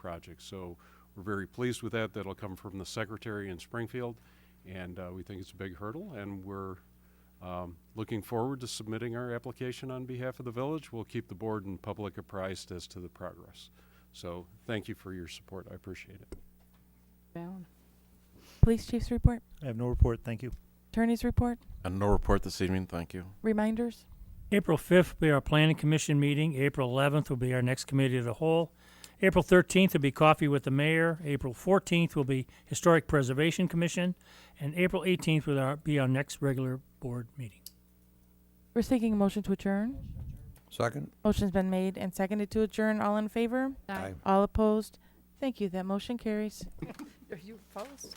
project. So we're very pleased with that. That'll come from the secretary in Springfield, and uh, we think it's a big hurdle, and we're um, looking forward to submitting our application on behalf of the village. We'll keep the board and public apprised as to the progress. So thank you for your support. I appreciate it. Allen. Police chief's report, I have no report, thank you. attorney's report, And no report this evening, thank you. reminders. April 5th will be our planning commission meeting. April 11th will be our next committee of the whole. April 13th will be coffee with the mayor. April 14th will be historic preservation commission. And April 18th will our- be our next regular board meeting. We're seeking a motion to adjourn. Second? Motion's been made and seconded to adjourn. All in favor? Aye. All opposed? Thank you. That motion carries. Are you opposed?